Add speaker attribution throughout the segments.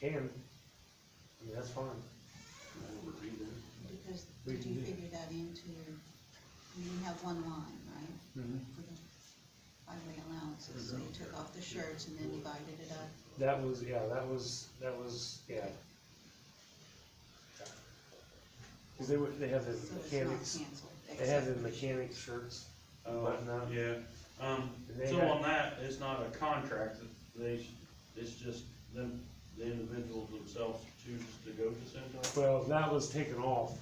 Speaker 1: can, I mean, that's fine.
Speaker 2: Because
Speaker 1: We
Speaker 2: did
Speaker 1: can
Speaker 2: you
Speaker 1: do.
Speaker 2: figure that into your, you have one line, right?
Speaker 3: Mm-hmm.
Speaker 2: For the highway allowances, so you took off the shirts and then divided it up.
Speaker 1: That was, yeah, that was, that was, yeah. Cause they would, they have the
Speaker 2: So it's not
Speaker 1: mechanics,
Speaker 2: canceled.
Speaker 1: they have the
Speaker 2: except-
Speaker 1: mechanic shirts,
Speaker 3: Oh,
Speaker 1: button up.
Speaker 3: yeah, um,
Speaker 1: They
Speaker 3: so
Speaker 1: had-
Speaker 3: on that, it's not a contract, they, it's just them, the individuals themselves choose to go to Centos?
Speaker 1: Well, that was taken off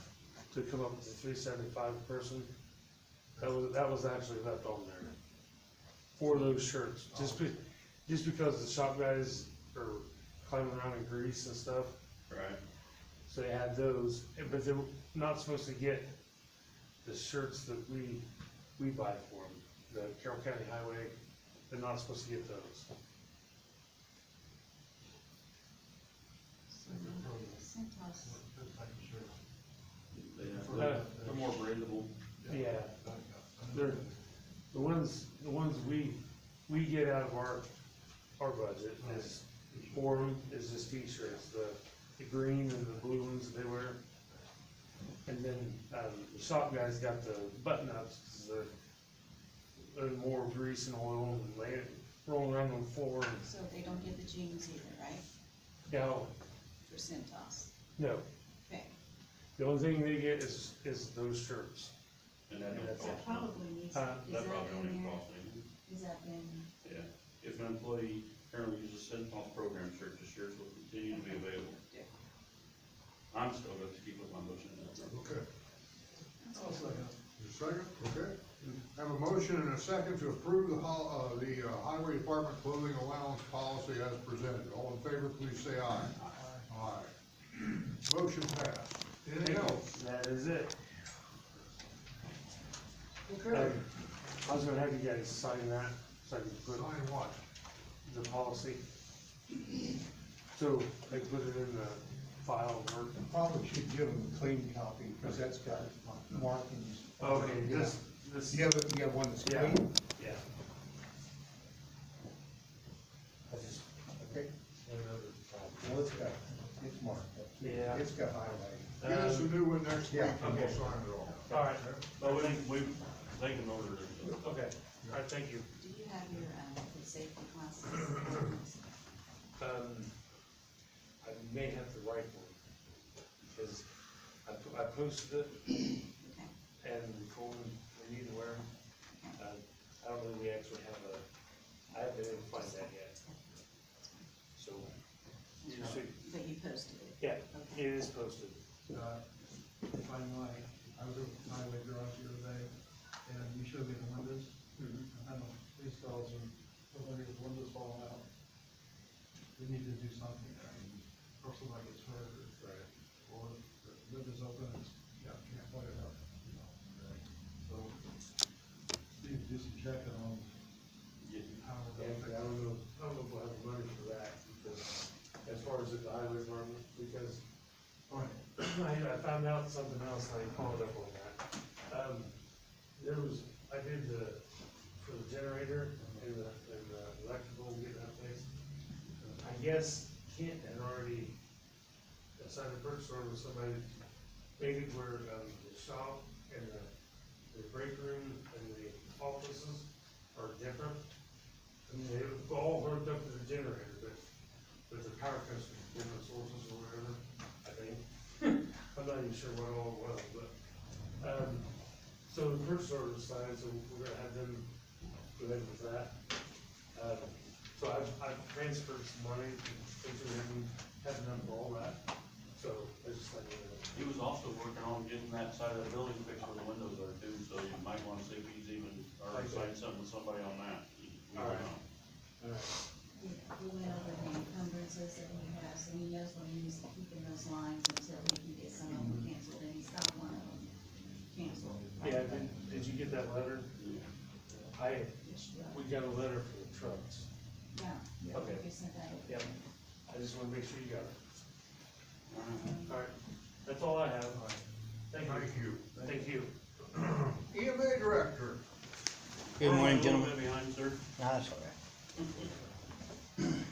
Speaker 1: to come up with the three seventy-five person. That was, that was actually left on there for those shirts, just be, just because the shop guys are climbing around in grease and stuff.
Speaker 3: Right.
Speaker 1: So they had those, and- but they're not supposed to get the shirts that we, we buy for them, the Carroll County Highway, they're not supposed to get those.
Speaker 2: So Cintas,
Speaker 3: They have-
Speaker 1: Uh,
Speaker 3: They're more breathable.
Speaker 1: Yeah, they're, the ones, the ones we, we get out of our, our budget is, for 'em is just t-shirts, the, the green and the blue ones they wear. And then, um, the shop guys got the button ups, cause they're, they're more grease and oil and laying, rolling around on the floor and
Speaker 2: so they don't get the jeans either, right,
Speaker 1: No,
Speaker 2: for Cintas?
Speaker 1: no,
Speaker 2: Okay,
Speaker 1: the only thing they get is, is those shirts.
Speaker 3: And that don't
Speaker 1: That's
Speaker 2: that
Speaker 3: cost,
Speaker 2: probably needs, is
Speaker 1: Huh?
Speaker 2: that
Speaker 3: that probably don't
Speaker 2: in
Speaker 3: even
Speaker 2: there?
Speaker 3: cost anything,
Speaker 2: Is that in,
Speaker 3: yeah. If an employee currently uses Centos program shirt, the shirts will continue to be available.
Speaker 2: Yeah.
Speaker 3: I'm still going to keep with my motion.
Speaker 4: Okay. Your second, okay. Have a motion and a second to approve the hol, uh, the uh, highway department clothing allowance policy as presented. All in favor, please say aye. Aye. Motion passed. Anything else?
Speaker 1: That is it.
Speaker 4: Okay.
Speaker 1: Um, I was gonna have you guys sign that, so I can put
Speaker 4: Sign what?
Speaker 1: the policy. So, I can put it in the file of work.
Speaker 5: Probably should give them a clean copy, because that's got markings.
Speaker 6: Oh,
Speaker 1: Okay, this, this,
Speaker 5: You have, a- you have one that's
Speaker 1: Yeah.
Speaker 5: clean?
Speaker 1: yeah.
Speaker 5: I just, okay, no, it's got, it's marked up.
Speaker 1: Yeah.
Speaker 5: It's got highway.
Speaker 4: Get us a
Speaker 1: Um,
Speaker 4: new one next week
Speaker 5: Yeah,
Speaker 4: and we'll
Speaker 1: okay.
Speaker 4: sign it all.
Speaker 1: All right.
Speaker 3: But Oh, we, we, they can order it.
Speaker 1: Okay, all right, thank you.
Speaker 2: do you have your, um, the safety classes?
Speaker 1: Um, I may have the right one, because I, po- I posted it,
Speaker 2: Okay,
Speaker 1: and Coleman, we need to wear 'em. Uh, I don't know if we actually have a, I haven't been able to find that yet. So, you should-
Speaker 2: but you posted it,
Speaker 1: yeah,
Speaker 2: okay.
Speaker 1: it is posted.
Speaker 6: uh, if I'm lying, I was over at the highway garage the other day, and you showed me the windows. I don't, these fellas are, look like the windows falling out. We need to do something, I mean, or somebody gets hurt, or- or the window's open, and it's, yeah, can't plug it up, you know. So, need to do some checking on
Speaker 3: Yeah.
Speaker 6: how.
Speaker 1: Yeah, but I don't know, I don't know if we'll have the money for that, because as far as the highway department, because
Speaker 6: All right,
Speaker 1: I, I found out something else, and I followed up on that. Um, there was, I did the, for the generator and the, and the electrical, getting that place. I guess Kent had already signed a purchase order with somebody, made it where, um, the shop and the, the break room and the offices are different. I mean, they all hooked up to the generator, but, but the power comes from different sources or whatever, I think. I'm not even sure what all it was, but, um, so the purchase order is signed, so we're gonna have them go ahead with that. Uh, so I've, I've transferred some money, into them, haven't done all that, so I just like, uh,
Speaker 3: He was also working on getting that side of the building fixed where the windows are too, so you might wanna see if he's even, or
Speaker 1: Okay.
Speaker 3: sign something with somebody on that. We don't
Speaker 1: Alright.
Speaker 3: know.
Speaker 1: alright,
Speaker 2: We we went over the encumbrances that he has, and he knows when he needs to keep in those lines until he can get some of them canceled, and he's got one of them canceled.
Speaker 1: yeah, did, did you get that letter? I, we got a letter for the trucks,
Speaker 2: Yeah. yeah,
Speaker 1: Okay.
Speaker 2: we sent that over.
Speaker 1: yep, I just wanna make sure you got it,
Speaker 3: Alright.
Speaker 1: alright, that's all I have, thank you, thank
Speaker 4: Thank you.
Speaker 1: you.
Speaker 4: EMA director.
Speaker 3: We're
Speaker 7: Good morning,
Speaker 3: a little
Speaker 7: gentlemen.
Speaker 3: bit Behind, sir.
Speaker 7: No, that's all right.